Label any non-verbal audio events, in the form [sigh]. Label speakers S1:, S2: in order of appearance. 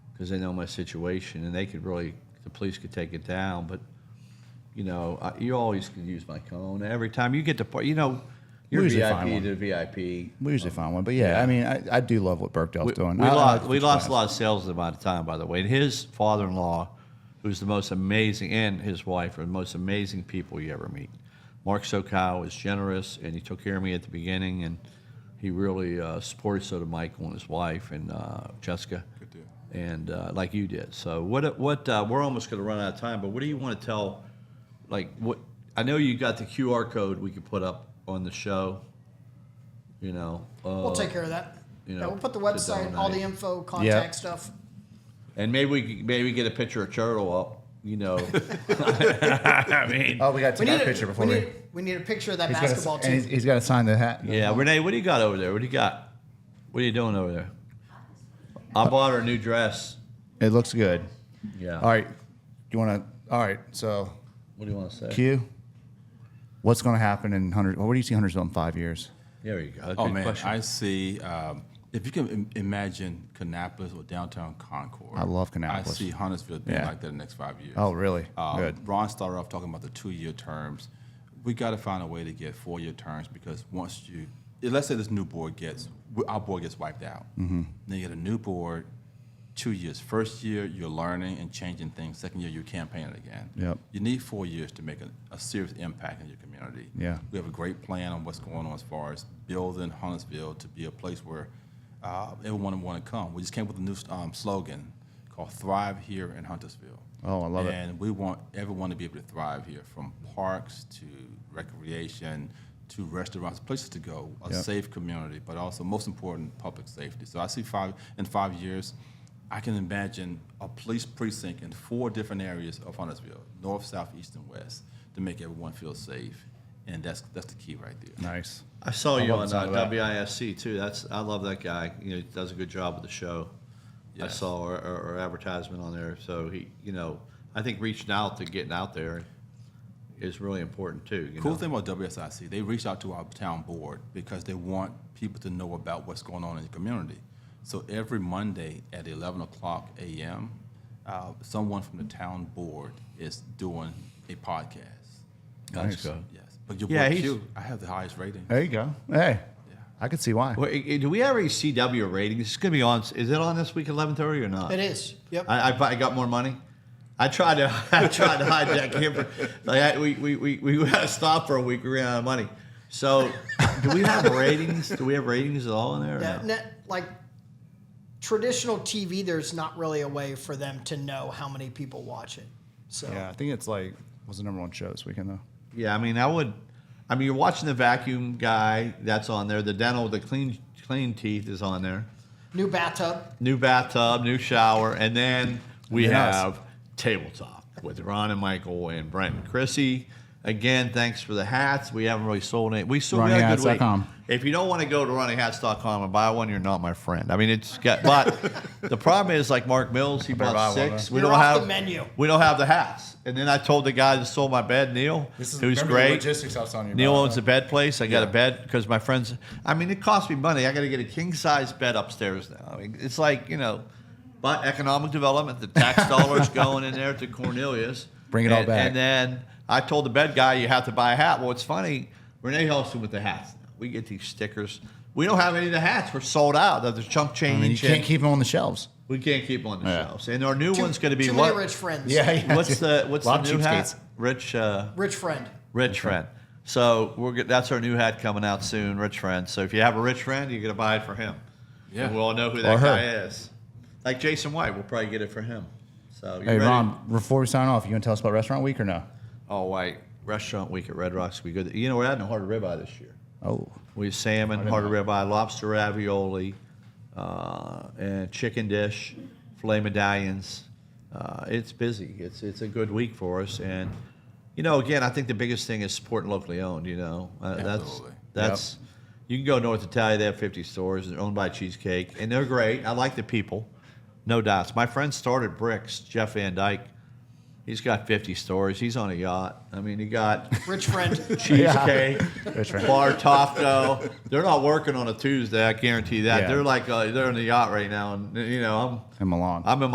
S1: because they know my situation, and they could really, the police could take it down, but, you know, I- you always can use my cone. Every time you get to, par- you know, you're
S2: usually find
S1: VIP
S2: one.
S1: to VIP.
S2: We usually find one, but yeah, I mean, I, I do love what Burkdale's
S1: We,
S2: doing.
S1: we
S2: I- I
S1: lost,
S2: like
S1: we
S2: the
S1: lost a
S2: class.
S1: lot of sales at about time, by the way. And his father-in-law, who's the most amazing, and his wife are the most amazing people you ever meet. Mark Sokow is generous, and he took care of me at the beginning, and he really uh, supported so did Michael and his wife and uh, Jessica, and uh, like you did. So what? What? Uh, we're almost going to run out of time, but what do you want to tell? Like what? I know you got the QR code we could put up on the show. You know, uh,
S3: We'll take care of that.
S1: you
S3: yeah,
S1: know,
S3: we'll put the
S1: to
S3: website, all the
S1: donate.
S3: info, contact
S2: Yeah.
S3: stuff.
S1: And maybe we could- maybe get a picture of Turtle up, you know. I mean,
S2: Oh, we got to
S3: We
S2: take
S3: need
S2: our
S3: a
S2: picture before
S3: we
S2: we.
S3: need, we need a picture of that
S2: he's gotta-
S3: basketball
S2: and
S3: team.
S2: he's- he's got to sign the hat.
S1: [laughs] yeah, Renee, what do you got over there? What do you got? What are you doing over there? I bought her a new dress.
S2: It looks good.
S1: Yeah.
S2: All right. You want to? All right. So,
S1: What do you want to say?
S2: Q, what's going to happen in hundred? What do you see Huntersville in five years?
S1: There you go.
S4: Oh
S1: Good
S4: man,
S1: question.
S4: I see. Um, if you can Im- imagine Canapolis or downtown Concord,
S2: I love
S4: I
S2: Kannapolis.
S4: see Huntersville being
S2: Yeah.
S4: like that in the next five years.
S2: Oh, really?
S4: Um,
S2: Good.
S4: Ron started off talking about the two-year terms. We got to find a way to get four-year terms because once you, let's say this new board gets, our board gets wiped out.
S2: Mm-hmm.
S4: Then you get a new board, two years. First year, you're learning and changing things. Second year, you're campaigning again.
S2: Yep.
S4: You need four years to make a, a serious impact in your community.
S2: Yeah.
S4: We have a great plan on what's going on as far as building Huntersville to be a place where uh, everyone would want to come. We just came with a new um, slogan called Thrive Here in Huntersville.
S2: Oh, I love it.
S4: And we want everyone to be able to thrive here, from parks to recreation to restaurants, places to go, a
S2: Yep.
S4: safe community, but also most important, public safety. So I see five in five years, I can imagine a police precinct in four different areas of Huntersville, north, south, east, and west, to make everyone feel safe. And that's that's the key right there.
S2: Nice.
S1: I saw you
S2: love
S1: on
S2: the sound
S1: uh,
S2: of that.
S1: WISC too. That's I love that guy. You know, he does a good job with the show. I
S4: Yes.
S1: saw our, our, our advertisement on there, so he, you know, I think reaching out to getting out there is really important too. You
S4: Cool
S1: know?
S4: thing about WSIC, they reached out to our town board because they want people to know about what's going on in the community. So every Monday at 11 o'clock a.m., uh, someone from the town board is doing a podcast.
S1: Nice.
S4: Yes, but your
S1: Yeah,
S4: boy
S1: he's-
S4: Q, I have the highest rating.
S2: There you go. Hey, I could see why.
S1: Well, i- i- do we have a CW rating? It's going to be on. Is it on this week, eleven thirty, or not?
S3: it is. Yep.
S1: I, I, I got more money. I tried to [laughs] I tried to hijack him. For, like I, we, we, we, we had to stop for a week. We ran out of money. So, do we have ratings? Do we have ratings at all in there? or
S3: Yeah,
S1: no?
S3: ne- like traditional TV, there's not really a way for them to know how many people watch it. So
S2: Yeah, I think it's like was the number one show this weekend though.
S1: Yeah, I mean, I would. I mean, you're watching the vacuum guy that's on there. The dental, the clean clean teeth is on there.
S3: new bathtub.
S1: New bathtub, new shower, and then we
S2: And then us.
S1: have tabletop with Ron and Michael and Brent and Chrissy. Again, thanks for the hats. We haven't really sold any. We sold we had a good week.
S2: RonnieHats.com.
S1: If you don't want to go to runninghats.com and buy one, you're not my friend. I mean, it's got. But the problem is, like Mark Mills, he
S2: buy
S1: bought
S2: one,
S1: six.
S2: huh?
S1: We
S3: You're
S1: don't
S3: off
S1: have
S3: the menu.
S1: We don't have the hats. And then I told the guy that sold my bed, Neil, who's great.
S2: logistics I was telling you. uh,
S1: Neil owns a bed place. I got a bed because my friends. I mean, it cost me money. I got to get a king size bed upstairs now. I mean, it's like you know, but economic development, the
S2: [laughs]
S1: tax dollars going in there to Cornelius.
S2: Bring it all
S1: And-
S2: back.
S1: And then I told the bed guy, you have to buy a hat. Well, it's funny. Renee helps him with the hats. now. We get these stickers. We don't have any of the hats. We're sold out. There's chunk change.
S2: I mean, you can't
S1: and
S2: keep them on the shelves.
S1: we can't keep on the
S2: Yeah.
S1: shelves. And our new
S3: Too,
S1: one's going to be
S3: too
S1: what?
S3: many rich friends.
S2: yeah.
S1: [laughs] What's the what's the
S2: Lot of
S1: new hat?
S2: cheapskates.
S1: Rich. Uh,
S3: Rich friend.
S1: Rich friend. So we're go- that's our new hat coming out soon, rich friend. So if you have a rich friend, you're gonna buy it for him.
S4: Yeah.
S1: And we all know who
S2: Or
S1: that
S2: her.
S1: guy is. Like Jason White, we'll probably get it for him. So you
S2: Hey,
S1: ready?
S2: Ron, before we sign off, you gonna tell us about Restaurant Week or no?
S1: Oh, White Restaurant Week at Red Rocks. We good. You know we're adding a hard ribeye this year.
S2: Oh,
S1: We have salmon, hard ribeye, lobster ravioli, uh, and chicken dish, filet medallions. Uh, it's busy. It's it's a good week for us, and you know, again, I think the biggest thing is supporting locally owned. You know, uh, that's
S4: Absolutely.
S1: that's you can go North Italia. They have fifty stores. They're owned by Cheesecake, and they're great. I like the people, no doubts. My friend started Bricks, Jeff Van Dyke. He's got fifty stores. He's on a yacht. I mean, he got
S2: [laughs]
S3: Rich friend.
S1: cheesecake,
S2: That's right.
S1: bar taco. They're not working on a Tuesday. I guarantee that.
S2: Yeah.
S1: They're like uh, they're on the yacht right now, and you know
S2: in Milan.
S1: I'm I'm in